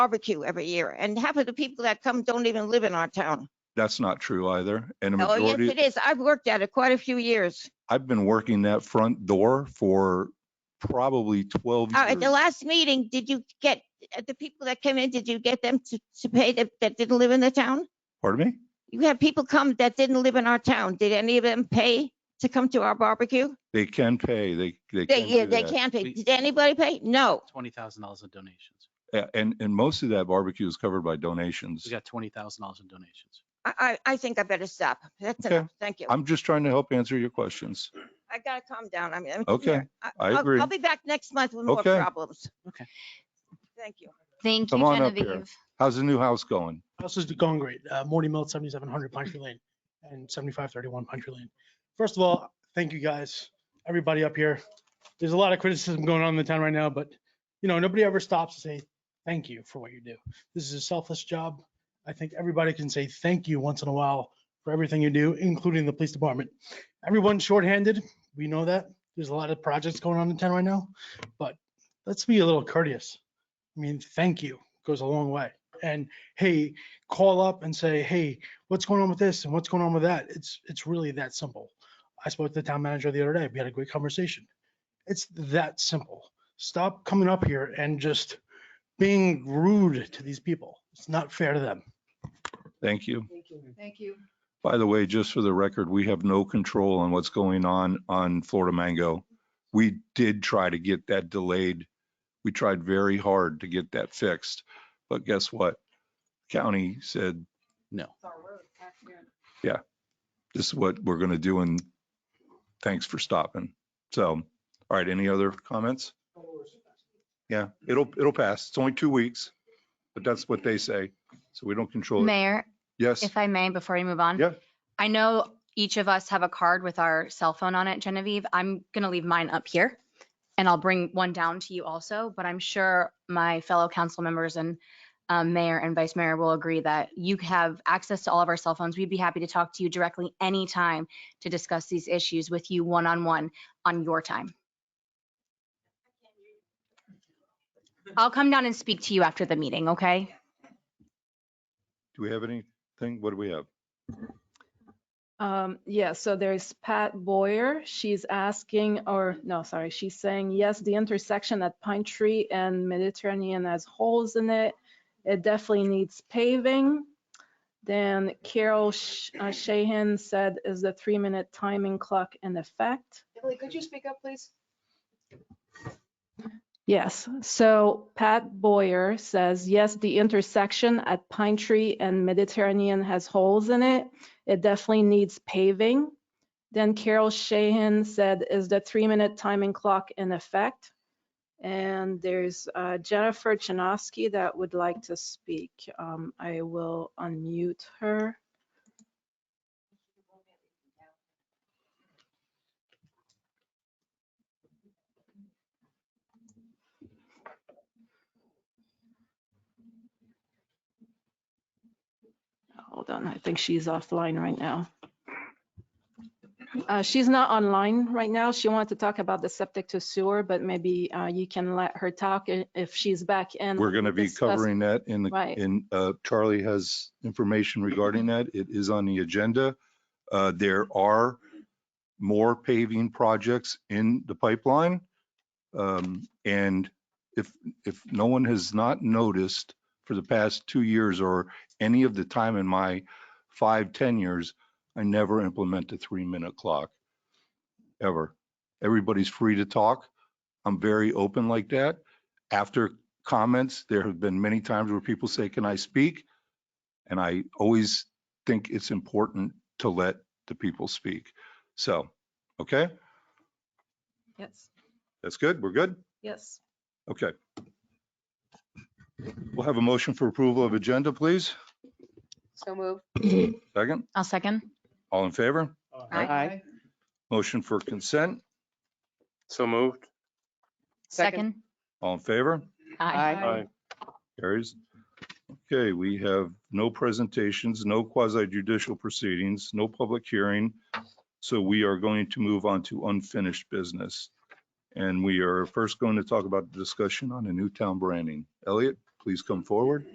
barbecue every year, and half of the people that come don't even live in our town. That's not true either. And a Oh, yes, majority, it is. I've worked at it quite a few years. I've been working that front door for probably 12 Uh, At the years. last meeting, did you get, uh, the people that came in, did you get them to, to pay that, that didn't live in the town? Pardon me? You had people come that didn't live in our town. Did any of them pay to come to our barbecue? They can pay, they, They, they can yeah, do they that. can't pay. We- Did anybody pay? No. twenty thousand dollars in donations. A- And, and most of that barbecue is covered by donations. We got twenty thousand dollars in donations. I, I, I think I better stop. That's Okay. enough. Thank you. I'm just trying to help answer your questions. I gotta calm down. I mean. I'm- Okay, yeah, I I'll- agree. I'll be back next month with more Okay. problems. Okay. Thank you. Thank you, Come on up here. Genevieve. How's the new house going? House is going great. Uh, Morty Mill, seventy-seven hundred Pine Tree Lane and seventy-five thirty-one Pine Tree Lane. First of all, thank you guys, everybody up here. There's a lot of criticism going on in the town right now, but you know, nobody ever stops to say thank you for what you do. This is a selfless job. I think everybody can say thank you once in a while for everything you do, including the police department. Everyone's shorthanded. We know that. There's a lot of projects going on in town right now, but let's be a little courteous. I mean, thank you goes a long way. And hey, call up and say, hey, what's going on with this and what's going on with that? It's, it's really that simple. I spoke to the town manager the other day. We had a great conversation. It's that simple. Stop coming up here and just being rude to these people. It's not fair to them. Thank you. Thank you. By the way, just for the record, we have no control on what's going on on Florida Mango. We did try to get that delayed. We tried very hard to get that fixed, but guess what? County said, No. this is what we're going to do and thanks for stopping. So, all right, any other comments? Yeah, it'll, it'll pass. It's only two weeks, but that's what they say. So we don't control it. Mayor, Yes, if I may, before we move on. Yeah. I know each of us have a card with our cell phone on it, Genevieve. I'm going to leave mine up here and I'll bring one down to you also, but I'm sure my fellow council members and um, mayor and vice mayor will agree that you have access to all of our cell phones. We'd be happy to talk to you directly anytime to discuss these issues with you one-on-one on your time. I'll come down and speak to you after the meeting, okay? do we have anything? What do we have? Um, yeah, so there's Pat Boyer. She's asking, or no, sorry, she's saying, yes, the intersection at Pine Tree and Mediterranean has holes in it. It definitely needs paving. Then Carol Sh- uh, Shahan said, is the three-minute timing clock in effect? Emily, could you speak up, please? Yes, so Pat Boyer says, yes, the intersection at Pine Tree and Mediterranean has holes in it. It definitely needs paving. Then Carol Shahan said, is the three-minute timing clock in effect? And there's uh, Jennifer Chinosky that would like to speak. Um, I will unmute her. Hold on, I think she's offline right now. Uh, She's not online right now. She wanted to talk about the septic to sewer, but maybe uh, you can let her talk i- if she's back in. We're we going to can be discuss- covering that in the, Right. in, uh, Charlie has information regarding that. It is on the agenda. Uh, There are more paving projects in the pipeline. Um, And if, if no one has not noticed for the past two years or any of the time in my five ten years, I never implement a three-minute clock, ever. Everybody's free to talk. I'm very open like that. After comments. There have been many times where people say, can I speak? And I always think it's important to let the people speak. So, okay, Yes, that's good. We're good. yes. Okay. We'll have a motion for approval of agenda, please. So move. Second, I'll second. all in favor? Aye. Motion for consent, So moved. Second. all in favor? Aye. Carries. Okay, we have no presentations, no quasi judicial proceedings, no public hearing. So we are going to move on to unfinished business. And we are first going to talk about the discussion on a new town branding. Elliot, please come forward.